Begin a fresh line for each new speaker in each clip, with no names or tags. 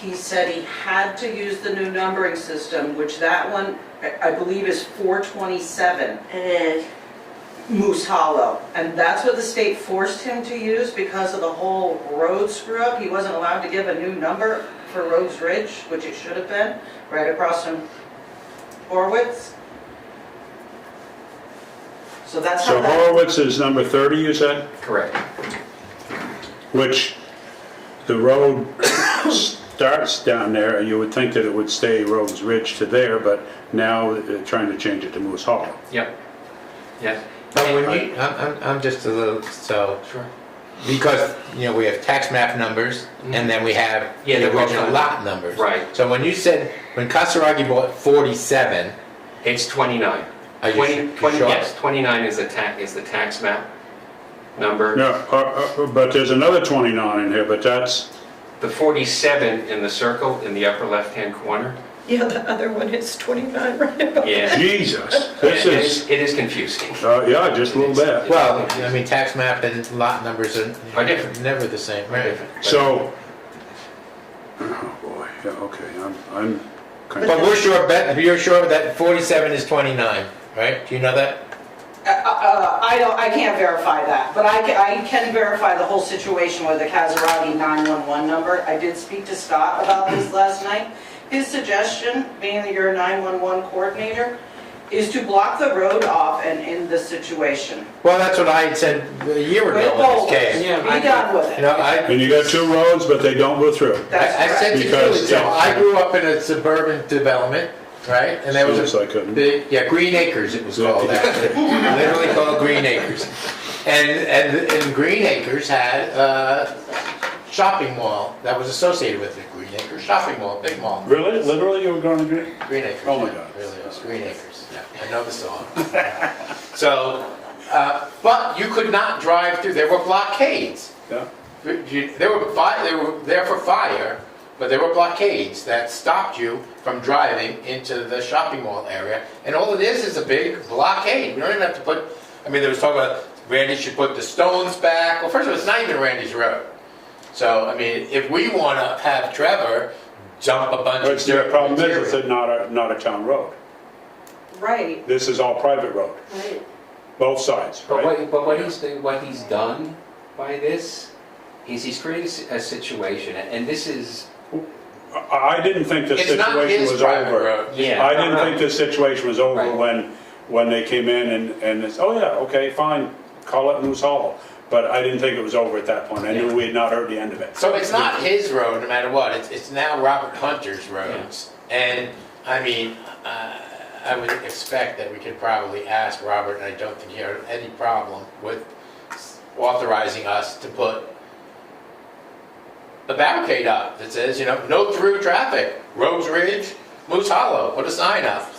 he said he had to use the new numbering system, which that one, I- I believe is 427
It is.
Moose Hollow. And that's what the state forced him to use because of the whole road screw-up. He wasn't allowed to give a new number for Rhodes Ridge, which it should have been, right across from Horwitz. So that's how
So
that,
Horowitz is number 30, you said,
Correct.
which the road starts down there, and you would think that it would stay Rhodes Ridge to there, but now they're trying to change it to Moose Hollow.
Yep. Yeah.
But when you, I'm, I'm, I'm just a little, so,
Sure.
because, you know, we have tax map numbers, and then we have
Mm-hmm. Yeah,
the
the road
original
fund.
lot numbers.
Right.
So when you said, when Kasaragi bought forty-seven,
It's 29.
Are you
20
su- you
20
sure?
Yes, 29 is the tax, is the tax map number.
No, uh, uh, but there's another 29 in here, but that's,
The 47 in the circle in the upper left-hand corner.
Yeah, the other one is 29, right?
Yeah.
Jesus,
It
this
is,
is,
it is confusing.
uh, yeah, just a little bit.
well, I mean, tax map and lot numbers are
Are different.
never the same, right?
So, oh boy, yeah, okay, I'm, I'm kind
But
of,
we're sure, bet- you're sure that forty-seven is twenty-nine, right? Do you know that?
Uh, uh, I don't, I can't verify that, but I can, I can verify the whole situation with the Casarati 911 number. I did speak to Scott about this last night. His suggestion, being that you're a 911 coordinator, is to block the road off and end the situation.
Well, that's what I had said a year
With
ago in this
boulders.
case.
Yeah, I-
Be done with
You
it.
know, I,
and you got two roads, but they don't go through.
That's
I I said
correct.
to you,
Because
you know,
it's-
I grew up in a suburban development, right? And there was
Seems like
a
it.
big, yeah, Green Acres it was called, actually. literally called Green Acres. And, and, and Green Acres had a shopping mall that was associated with it, Green Acres shopping mall, big mall.
Really, literally, you were going to do?
Green Acres.
Oh my
yeah,
God.
Really, it was Green Acres, yeah, I know the song. So, uh, but you could not drive through, there were blockades.
Yeah.
There were fi, they were there for fire, but there were blockades that stopped you from driving into the shopping mall area. And all it is is a big blockade. We don't even have to put, I mean, there was talk about Randy should put the stones back. Well, first of all, it's not even Randy's road. So, I mean, if we want to have Trevor jump a bunch of
But the
dirt.
problem is,
material-
it's not a, not a town road.
Right.
This is all private road,
Right.
both sides,
But
right?
what, but what he's, what he's done by this is he's created a situation, and this is,
I I didn't think this
It's not
situation
his
was
private
over.
road.
yeah.
I didn't think this situation was over
Right.
when, when they came in and, and it's, oh yeah, okay, fine, call it Moose Hollow. But I didn't think it was over at that point. I knew
Yeah.
we had not heard the end of it.
So it's not his road, no matter what, it's, it's now Robert Hunter's roads. And, I mean, uh, I would expect that we could probably ask Robert, and I don't think he had any problem with authorizing us to put a barricade up that says, you know, no through traffic, Rose Ridge, Moose Hollow, put a sign up.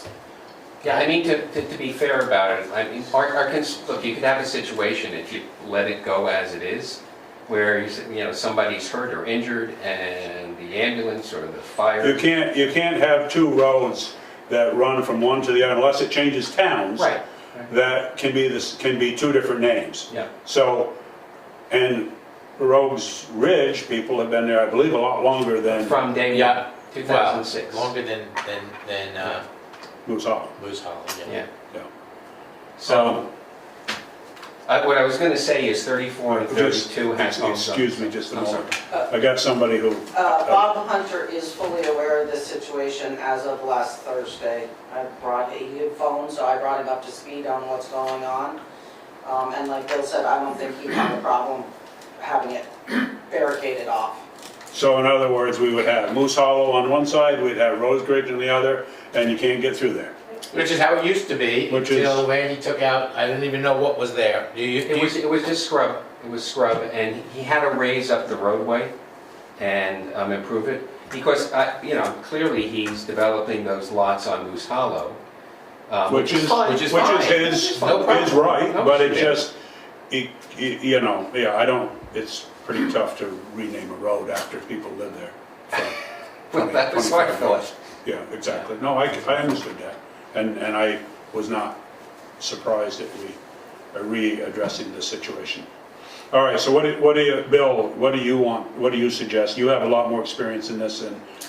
Yeah, I mean, to, to, to be fair about it, I mean, our, our, cons- look, you could have a situation if you let it go as it is, where, you s- you know, somebody's hurt or injured and the ambulance or the
You
fire.
can't, you can't have two roads that run from one to the other unless it changes towns.
Right,
That can be this, can be two different names.
yeah.
So, and Rogues Ridge, people have been there, I believe, a lot longer than
From day one,
Yeah.
two thousand six.
Well, Longer than, than, than uh,
Moose Hollow. Um,
Moose Hollow,
Yeah.
yeah.
Yeah.
So, I- what I was gonna say is thirty-four and
Just-
thirty-two has also.
Excuse me just a
I'm sorry.
moment. I got somebody who,
Uh, Bob Hunter is fully aware of this situation as of last Thursday. I brought, he had phoned, so I brought him up to speed on what's going on. Um, and like Bill said, I don't think he had a problem having it barricaded off.
so in other words, we would have Moose Hollow on one side, we'd have Rose Ridge on the other, and you can't get through there.
Which is how it used to be,
Which is-
until Randy took out, I didn't even know what was there. Do you, do
It was,
you-
it was just scrub, it was scrub, and he had to raise up the roadway and um, improve it, because, I- you know, clearly he's developing those lots on Moose Hollow. um,
Uh, Which is,
fine,
which is
fine.
his, his
No problem.
right,
No
but it
issue.
just, it- it- you know, yeah, I don't, it's pretty tough to rename a road after people live there.
Well, that was my
25
thought.
Yeah, exactly. No, I, I understood that. And, and I was not surprised that we are readdressing the uh, situation. All right, so what do, what do you, Bill, what do you want, what do you suggest? You have a lot more experience in this than